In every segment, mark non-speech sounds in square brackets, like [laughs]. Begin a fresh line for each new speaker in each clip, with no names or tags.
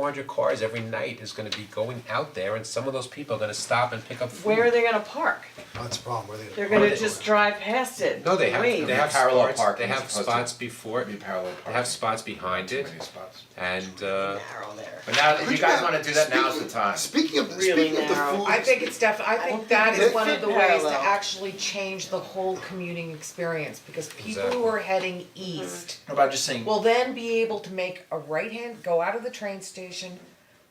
four hundred cars every night is gonna be going out there and some of those people are gonna stop and pick up food.
Where are they gonna park?
That's the problem, where Oh, they.
They're gonna just drive past it.
No, they have,
Wait.
they have
Parallel
spots, they
parking is
have
supposed to
spots before,
Be
it,
parallel
they have
parking,
spots behind
too
it,
many spots.
and uh,
Narrow there.
But now, if you guys wanna do that, now's the
Speaking-
time.
Speaking of,
Really
speaking of the
narrow.
food.
I think it's def, I think that
They
is one of
fit
the ways to
parallel.
actually change the whole commuting experience, because people who are heading east
What about just saying,
will then be able to make a right hand, go out of the train station,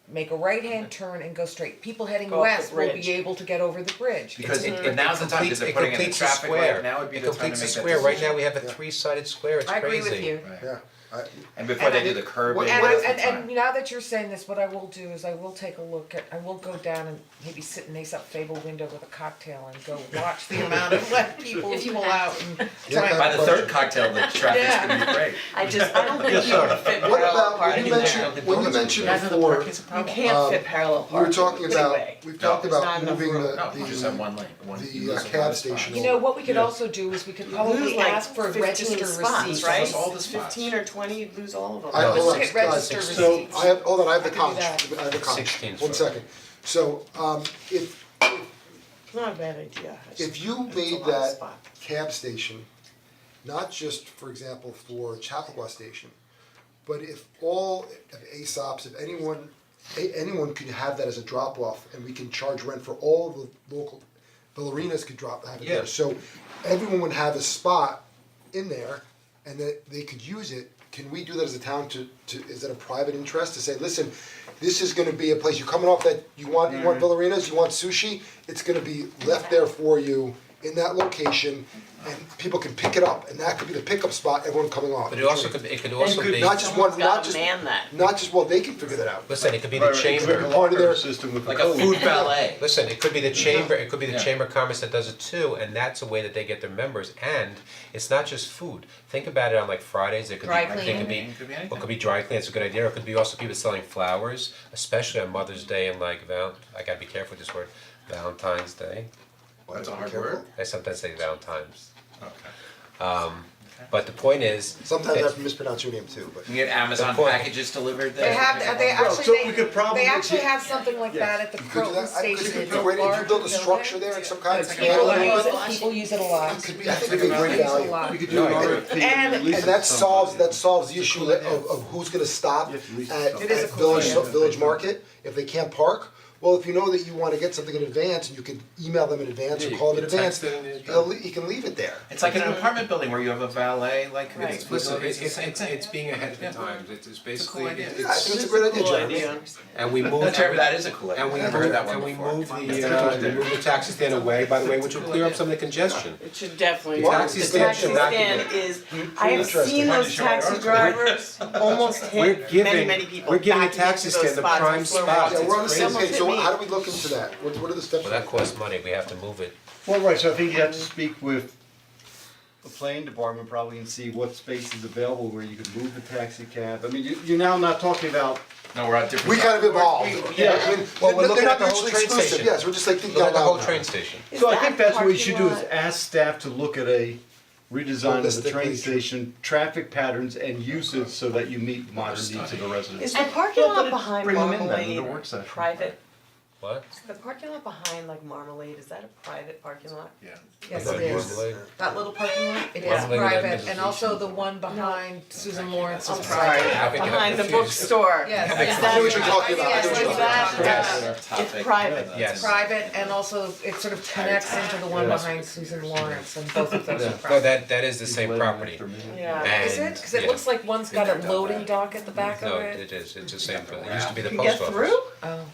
make a right hand turn and go straight. People heading
Go up the
west will
bridge.
be able to get over the bridge.
because,
It- it-
but now's the time, because they're
it
putting in the
completes the
traffic
square,
light, now would be
it
the time to make that
completes
decision.
the square, right now we have a three-sided square, it's
I
crazy.
agree with you.
Yeah, I,
And before they do the curbing,
And I,
now's the
and
time.
and now that you're saying this, what I will do is I will take a look at, I will go down and maybe sit in this up Fable window with a cocktail and go watch the amount of what people
If you
pull
have
out and
Yeah,
try and
By the third cocktail, the traffic's gonna
[laughs]
be great.
I just, I don't think you can fit
what
parallel
about, when
parking
you
there.
mentioned, when you mentioned before,
You can't fit parallel
we were
parking
talking
anyway.
about, we talked
there's
about
not enough
moving
room.
the,
No, you just have one lane, one,
the,
you
uh,
lose
cab
one spot.
station
You know, what we could also do is we could probably
Lose like
ask for register
fifteen spots,
receipts.
right?
Almost all the spots.
Fifteen or twenty, you'd lose all of them.
I,
No,
hold on,
it's- register
guys, so,
receipts.
I have, hold on, I have the
I could do
conch,
that.
I have the conch,
16 's
one
fine.
second. So, um, if,
It's not a bad idea. It's-
if you
it's a
made
lot of
that
spot.
cab station, not just, for example, for Chappaqua Station, but if all of ASOPs, if anyone, a- anyone could have that as a drop off and we can charge rent for all the local, ballerinas could drop, have it there.
Yeah.
So everyone would have a spot in there and that they could use it. Can we do that as a town to, to, is that a private interest to say, listen, this is gonna be a place, you're coming off that, you want, you want ballerinas, you want sushi? It's gonna be left there for you in that location and people can pick it up and that could be the pickup spot, everyone coming off.
But it also could, it could also
could
be,
not just one,
Someone's
not
gotta
just,
man that.
not just, well, they can figure that out.
listen, it could be the
It's
chamber,
a part of their-
Like a food ballet.
listen, it could be the chamber, it could be the
Yeah.
chamber of commerce that does it too, and that's a way that they get their members, and it's not just food. Think about it on like Fridays, it could be,
Dry
it could be,
cleaning. Could be anything.
well, it could be dry cleaning, it's a good idea, or it could be also people selling flowers, especially on Mother's Day and like Val, I gotta be careful with this word, Valentine's Day.
That's a hard
Careful.
word.
I sometimes say Valentine's. Um,
Okay.
But the point is,
Sometimes I mispronounce your name too, but.
You can get Amazon
point.
packages delivered there.
They have, they
so
actually,
we could
they,
probably
they actually
get-
have something like that at the
You could do
Croton
that, I, cause it
station,
could
it's
be
a
great, if you
large
build a
building.
structure there in some kind of.
People
manner,
use it, people use it a
it
lot.
could be- I think it'd be great
People use it
value.
a lot.
could do an RFP and
And-
release
And
it
that
to
solves,
somebody.
that solves the issue of, of who's gonna stop at,
have to lease
at
It is a cool
Village,
idea.
Village Market, if they can't park, well, if you know that you wanna get something in advance, and you can email them in advance or
you
call
can
them in advance,
text it and-
they'll le- you can leave it there.
It's like in an apartment building where you have a valet, like,
Right.
it's,
listen, it's,
it's the
it's,
same
it's,
thing.
it's being ahead of the times, it's, it's
It's a cool
basically,
idea.
Yeah, I
it's,
[laughs]
think it's a great idea,
Cool
Jeremy.
idea.
and we move.
That's right, but that is a cool idea.
And we
I've
move,
heard that one
and we
before.
move the, uh, we move the taxi stand away, by the way, which will clear up some of the congestion.
It should definitely.
Why?
Taxi
Taxi
stand
stand should not be
is, I have
Interesting.
seen
Why
those
did you write
taxi
articles?
drivers almost
We're
hit many,
giving,
many people.
we're giving the
backing into
taxi
those
stand the
spots
prime
before
spots,
Yeah,
it's
we're on the same
Someone
page, so
hit me.
how do we look into that? What, what are the steps?
Well, that costs money, we have to move it.
Well, right, so I think you have to speak with the planning department probably and see what space is available where you could move the taxi cab. I mean, you, you're now not talking about,
No, we're on different.
We kind of evolved,
yeah,
I mean,
Well, we're
they're
looking
not
at the whole
mutually
train
exclusive.
station.
Yes, we're just like thinking
Look at
out
the whole
loud.
train station.
Is
so I
that
think that's what we should do is
parking lot-
ask staff to look at a redesign of the train
Holistically.
station, traffic patterns and usage so that you meet modern needs of the residents.
Is the parking lot behind Marmalade
session.
private?
What?
Is the parking lot behind like Marmalade, is that a private parking lot?
Yeah.
Yes, it is.
Marmalade?
That little parking lot, it is
Lovely with that
private,
business
and also the one behind Susan Lawrence.
I'm sorry,
I've been
behind the
confused.
bookstore.
Yes.
Is
I
I
that-
know what you're talking about, I know what you're talking about.
Yes.
Yes.
It's private.
Yes.
Private, and also it sort of connects into the one behind Susan Lawrence, and both of those are private.
No, that, that is the same property.
Yeah.
Is it? Cause it
Yeah.
looks like one's got a loading dock at the back
No,
of
it is, it's the same, it used to be the
You
post office.
can get through?
Oh.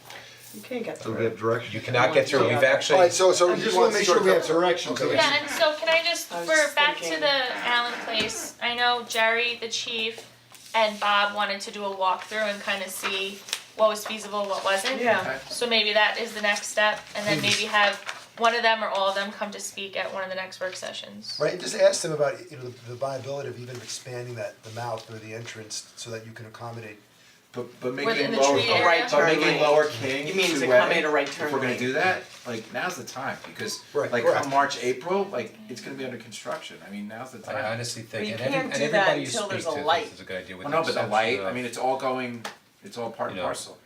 You can't get
So
through.
we have direction.
You cannot get through, we've actually,
Alright, so, so
I
you
just
want
wanna make sure we have
circle-
direction so
Okay.
that
Yeah, and so can I just,
I was
for
just
back to
thinking.
the Allen Place, I know Jerry, the chief, and Bob wanted to do a walkthrough and kind of see what was feasible, what wasn't.
Yeah.
So maybe that is the next step, and then maybe have one of them or all of them come to speak at one of the next work sessions.
Right, and just ask them about, you know, the viability of even expanding that, the mouth or the entrance, so that you can accommodate.
But but
Where in
making
the
lower,
tree area?
but making
Right.
lower King
You mean to
to
come
Way,
in a right
if
turn
we're gonna
lane.
do that, like now's the time, because
Right,
like
correct.
come March, April, like it's gonna be under construction, I mean, now's the time.
I honestly think,
But you
and every,
can't
and
do that
everybody you
until
speak
there's
to
a
thinks
light.
it's a good idea with
Well,
the
no, but the
exception
light,
of-
I mean, it's all going,
it's all part and
You know.
parcel.